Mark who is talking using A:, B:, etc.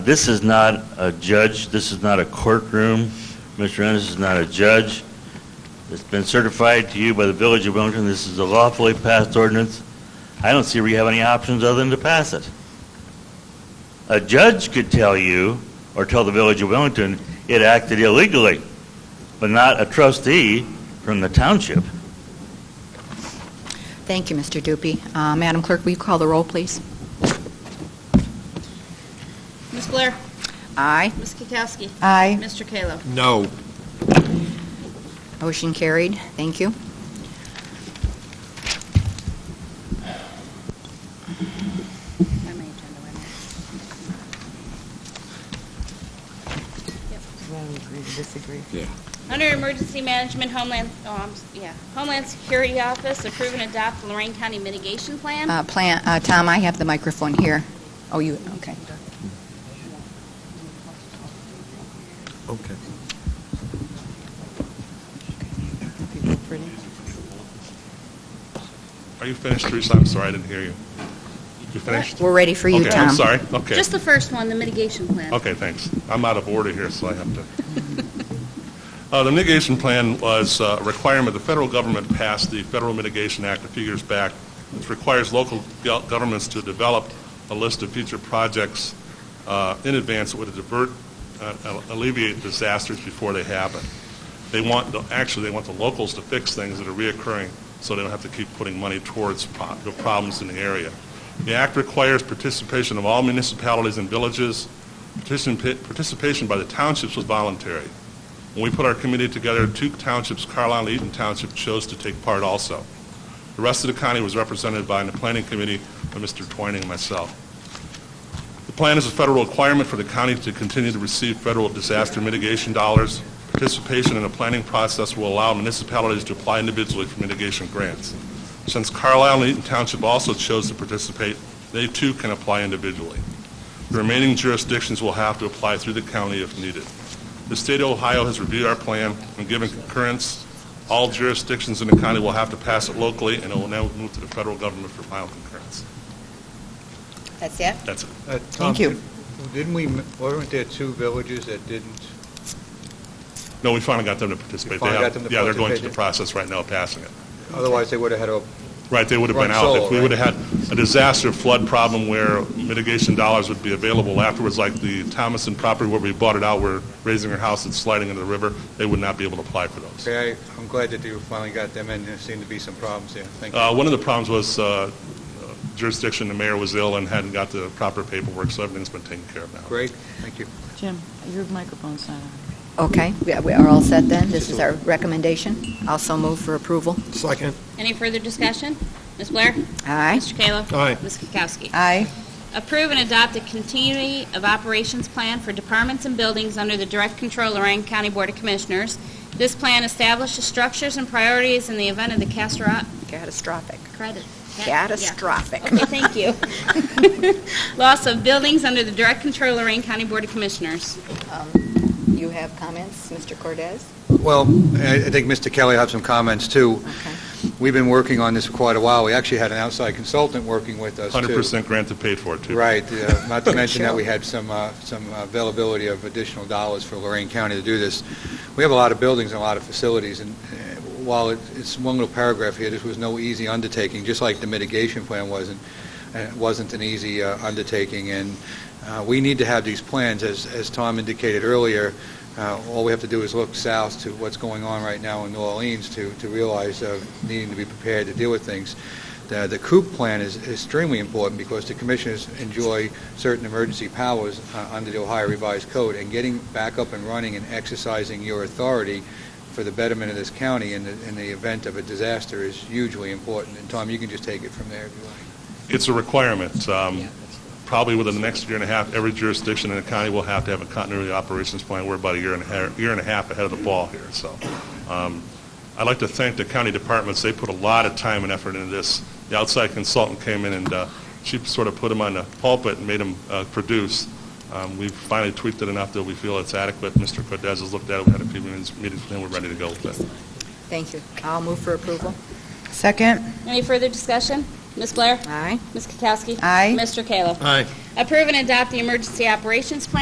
A: This is not a judge, this is not a courtroom. Mr. Ennis is not a judge. It's been certified to you by the Village of Wellington, this is a lawfully passed ordinance. I don't see where you have any options other than to pass it. A judge could tell you, or tell the Village of Wellington, it acted illegally, but not a trustee from the township.
B: Thank you, Mr. Dupuy. Uh, Madam Clerk, will you call the roll, please?
C: Ms. Blair?
B: Aye.
C: Ms. Kukowski?
B: Aye.
C: Mr. Kallo?
D: No.
B: Motion carried. Thank you.
E: disagree.
C: Under Emergency Management Homeland, oh, I'm s- yeah, Homeland Security Office, approve and adopt Lorraine County Mitigation Plan.
B: Uh, Plan, uh, Tom, I have the microphone here. Oh, you, okay.
D: Okay.
F: Are you finished, Teresa? I'm sorry, I didn't hear you. You finished?
B: We're ready for you,
F: Okay,
B: Tom.
F: I'm sorry. Okay.
C: Just the first one, the mitigation plan.
F: Okay, thanks. I'm out of order here, so I have to. Uh, The mitigation plan was uh, a requirement the federal government passed the Federal Mitigation Act a few years back, which requires local go- governments to develop a list of future projects uh, in advance that would divert, uh, alleviate disasters before they happen. They want, the- actually, they want the locals to fix things that are reoccurring, so they don't have to keep putting money towards pro- the problems in the area. The act requires participation of all municipalities and villages. Participa- Participation by the townships was voluntary. When we put our committee together, two townships, Carlisle and Eaton Township, chose to take part also. The rest of the county was represented by the planning committee by Mr. Twining and myself. The plan is a federal requirement for the county to continue to receive federal disaster mitigation dollars. Participation in the planning process will allow municipalities to apply individually for mitigation grants. Since Carlisle and Eaton Township also chose to participate, they too can apply individually. The remaining jurisdictions will have to apply through the county if needed. The state of Ohio has reviewed our plan and given concurrence. All jurisdictions in the county will have to pass it locally, and it will now move to the federal government for final concurrence.
B: That's it?
F: That's it.
E: Thank you.
D: Uh, Didn't we, weren't there two villages that didn't?
F: No, we finally got them to participate. They
D: finally
F: have-
D: got them to
F: Yeah, they're going
D: participate.
F: through the process right now, of passing it.
D: Otherwise, they would have had a,
F: Right, they would have
D: Run
F: been out.
D: solo,
F: If we
D: right?
F: would have had a disaster flood problem where mitigation dollars would be available afterwards, like the Thomason property where we bought it out, we're raising our house and sliding into the river, they would not be able to apply for those.
D: okay, I- I'm glad that you finally got them in. There seemed to be some problems there. Thank you.
F: Uh, One of the problems was uh, jurisdiction, the mayor was ill and hadn't got the proper paperwork, so everything's been taken care of now.
D: Great, thank you.
E: Jim, your microphone's not on.
B: Okay, we we are all set then. This is our recommendation. Also move for approval.
D: Second.
C: Any further discussion? Ms. Blair?
B: Aye.
C: Mr. Kallo?
D: Aye.
C: Ms. Kukowski?
B: Aye.
C: Approve and adopt a continuity of operations plan for departments and buildings under the direct control of Lorraine County Board of Commissioners. This plan establishes structures and priorities in the event of the catastro-
B: Catastrophic.
C: credit- cat- yeah.
B: Catastrophic.
C: Okay, thank you. Loss of buildings under the direct control of Lorraine County Board of Commissioners.
B: Um, You have comments, Mr. Cortez?
D: Well, I I think Mr. Kelly had some comments, too.
B: Okay.
D: We've been working on this for quite a while. We actually had an outside consultant working with us, too.
F: 100% grant to pay for it, too.
D: Right, uh, not to mention that
B: Sure.
D: we had some, uh, some availability of additional dollars for Lorraine County to do this. We have a lot of buildings and a lot of facilities, and uh, while it- it's one little paragraph here, this was no easy undertaking, just like the mitigation plan wasn't, uh, wasn't an easy uh, undertaking, and uh, we need to have these plans, as, as Tom indicated earlier, uh, all we have to do is look south to what's going on right now in New Orleans to, to realize uh, needing to be prepared to deal with things. The the COOP plan is is extremely important because the commissioners enjoy certain emergency powers uh, under the Ohio Revised Code, and getting back up and running and exercising your authority for the betterment of this county in the in the event of a disaster is hugely important. And Tom, you can just take it from there if you like.
F: It's a requirement. Um, Probably within the next year and a half, every jurisdiction in the county will have to have a continuity operations plan. We're about a year and a half, year and a half ahead of the ball here, so. um, I'd like to thank the county departments. They put a lot of time and effort into this. The outside consultant came in and uh, she sort of put him on the pulpit and made him uh, produce. Um, We've finally tweaked it enough that we feel it's adequate. Mr. Cortez has looked at it. We had a few meetings, meetings with him. We're ready to go with it.
B: Thank you. I'll move for approval.
E: Second?
C: Any further discussion? Ms. Blair?
B: Aye.
C: Ms. Kukowski?
E: Aye.
C: Mr. Kayla?
G: Aye.
C: Approve and adopt the Emergency Operations Plan